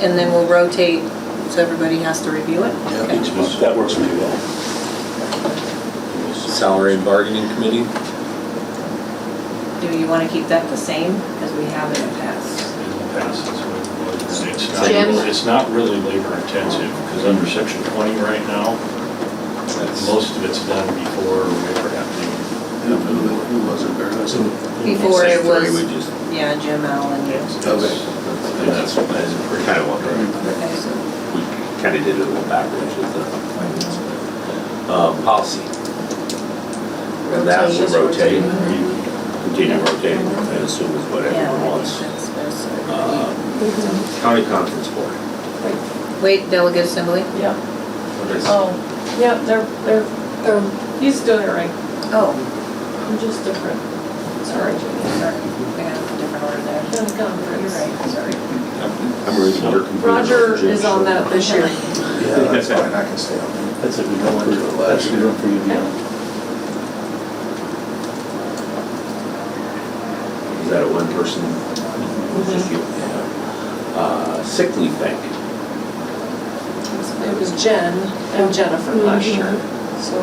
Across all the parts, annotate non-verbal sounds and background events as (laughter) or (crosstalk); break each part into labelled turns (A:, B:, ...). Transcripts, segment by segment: A: and then we'll rotate, so everybody has to review it?
B: Yeah,
A: Okay.
B: each month, that works pretty well.
C: Salary and bargaining committee?
A: Do you want to keep that the same as we have in the past?
D: in the past, that's what it was. And It's
E: Jim?
D: not, it's not really labor intensive, because under section twenty right now, most of it's done before we ever have to.
B: I don't know who was it, Bernard?
A: Before it
C: Three,
A: was,
C: we just,
A: yeah, Jim Allen.
D: It's- it's-
B: Okay.
D: And that's, that's pretty.
C: Kinda wondering.
A: Okay, so
C: we kind of did it a little backwards with the, um, policy. And that will rotate,
A: Rotation.
C: continue rotating, I assume is what
A: Yeah,
C: everyone
A: I think
C: wants.
A: that's best.
C: Uh, County conference board.
A: Wait, delegate assembly?
F: Yeah,
C: What is-
F: oh, yeah, they're, they're, they're, he's doing it right,
A: Oh,
F: I'm just different. Sorry,
A: sorry, Jimmy, sorry. I got a different order there.
F: Jim
A: You're
F: Gumbers.
A: right, sorry.
C: I'm reading your computer.
F: Roger
C: Jim,
F: is on
C: so-
F: that this year.
B: Yeah, that's fine, I can stay on that.
G: That's a good one, that's a good one for you, Dion.
C: Is that a one person?
F: Mm-hmm.
C: Just you? Uh, sick leave bank.
F: It was Jen and Jennifer last
H: Mm-hmm.
F: year, so.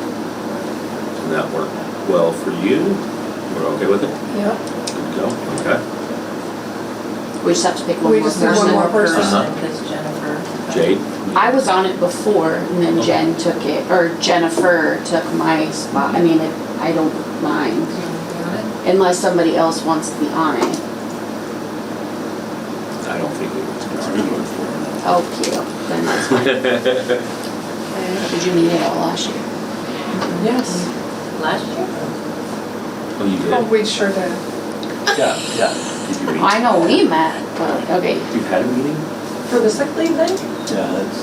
C: And that worked well for you? We're okay with it?
F: Yeah.
C: Good to go? Okay.
E: We just have to pick one
F: We
E: more
F: just need one more
E: person.
F: person.
C: Uh-huh.
A: Because Jennifer.
C: Jade?
E: I was on it before and then Jen took it, or Jennifer took my spot. I mean, it- I don't mind
A: Mm-hmm.
E: unless somebody else wants to be on it.
C: I don't think
B: That's a good one for him.
E: Oh, cute. Then that's fine.
C: it was.
E: Did you meet it all last year?
F: Yes.
A: Last year?
C: Oh, you did?
F: we sure did.
C: Yeah, yeah. Did you meet?
E: I know we met, but, okay.
C: You've had a meeting?
F: For the sick leave thing?
G: Yeah, that's.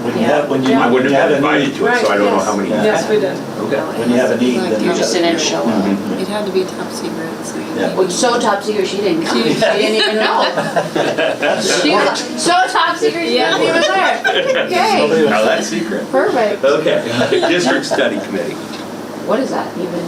G: When you
A: Yeah.
G: have, when you.
C: I wouldn't
G: when you
C: have
G: a
C: been invited
G: need-
C: to it, so I don't know
F: Right,
C: how many.
G: yes.
F: Yes, we did.
C: Okay.
G: When you have a need, then.
E: You just didn't show up.
D: (laughs)
G: Mhm.
A: It had to be top secret, so you.
G: Yeah.
E: Well, so top secret, she didn't come. She didn't even know. (laughs) She was like, so top secret, she wasn't even there.
C: (laughs)
E: Yay,
C: Now that's secret.
E: perfect.
C: Okay. (laughs) District study committee.
E: What is that even?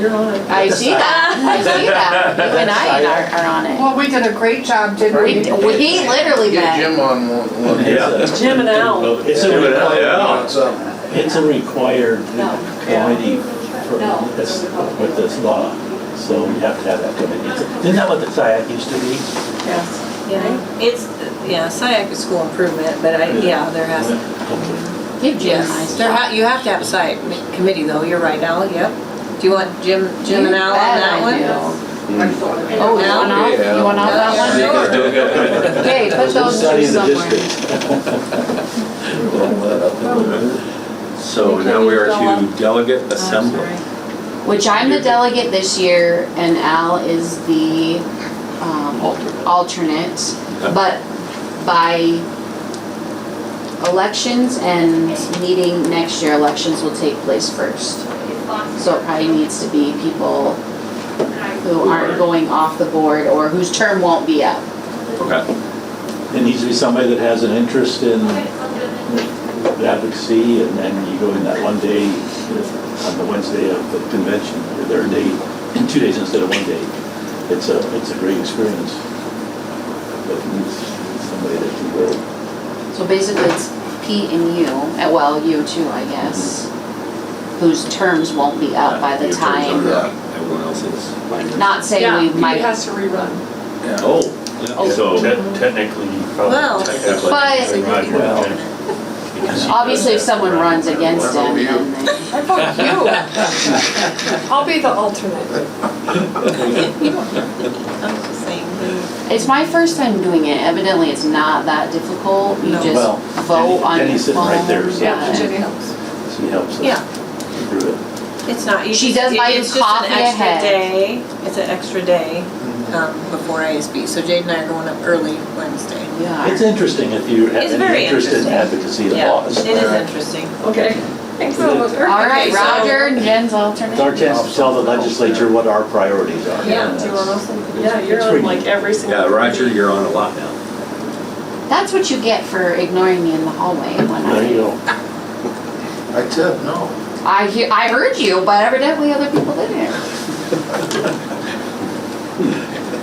F: You're on it.
E: I see that, I see that. You and I are, are on it.
H: Well, we did a great job, didn't
E: We,
H: we?
E: he literally
B: Get
E: met.
B: Jim on one, one.
C: Yeah.
G: It's
F: Jim and Al.
G: It's a required,
C: Yeah.
B: So,
G: it's a required
E: No.
G: committee for this, with this law, so we have to have that committee. Isn't that what the SiAC used to be?
F: Yes.
A: Yeah, it's, yeah, SiAC is school improvement, but I, yeah, there has,
G: Okay.
E: Give Jim my
A: yes, there ha, you have to have a SiAC committee though, you're right, Al, yep. Do you want Jim, Jim and Al on that one?
E: Oh, you want off, you want off that
A: Sure.
C: Okay.
E: one? Yay, put those
G: Study
E: two
G: of the
E: somewhere.
G: district. Blowing that up a little bit.
C: So now we are to delegate assembly.
E: Which I'm the delegate this year and Al is the, um,
C: Alternate.
E: alternate. But by elections and meeting next year, elections will take place first. So it probably needs to be people who aren't going off the board or whose term won't be up.
C: Okay.
G: It needs to be somebody that has an interest in advocacy, and then you go in that one day, uh, on the Wednesday of the convention, or their day, two days instead of one day. It's a, it's a great experience. But it needs somebody that can go.
E: So basically, it's Pete and you, eh, well, you too, I guess, whose terms won't be up by the
C: Your turns
E: time.
C: are up. Everyone else is. mine is-
E: Not
F: Yeah,
E: saying we
F: He
E: might,
F: has to rerun.
C: Oh. So,
D: Te- Technically, you
A: Well.
D: probably technically.
E: But-
D: they run with
G: Well.
D: it, because you
E: obviously, if
D: guys have to
E: someone
D: run.
E: runs against
B: What about you?
E: him, then they.
H: I vote
G: (laughs)
H: you. I'll be the alternate.
A: I'm just saying,
E: It's my first time doing it. Evidently, it's not that difficult. You
A: No.
E: just
G: Well,
E: vote
G: Jenny-
E: on your
G: Jenny's sitting right
E: phone,
G: there, so-
E: yeah.
H: Jenny helps.
G: She helps us.
A: Yeah.
G: Through it.
A: it's not, you
E: She
A: just-
E: does
A: it-
E: buy you
A: it's just an
E: coffee
A: extra
E: ahead.
A: day, it's an extra day,
G: Mm-hmm.
A: um, before ASB, so Jade and I are going up early Wednesday.
E: We are.
G: It's interesting if you have
A: It's very
G: any interest in
A: interesting.
G: advocacy of
A: Yeah,
G: laws.
A: it is interesting.
F: Okay.
H: Thanks, Elizabeth.
E: All right,
A: Okay, so-
E: Roger and Jen's
G: It's our
E: alternate.
G: chance to tell the legislature what our priorities are.
A: Yeah,
G: And
H: Do you want us to-
F: Yeah, you're
G: It's
F: on
G: pretty-
F: like every single.
C: yeah, Roger, you're on a lot now.
E: That's what you get for ignoring me in the hallway when
G: There you
E: I,
G: go.
B: I tip, no.
E: I hear, I heard you, but evidently other people didn't.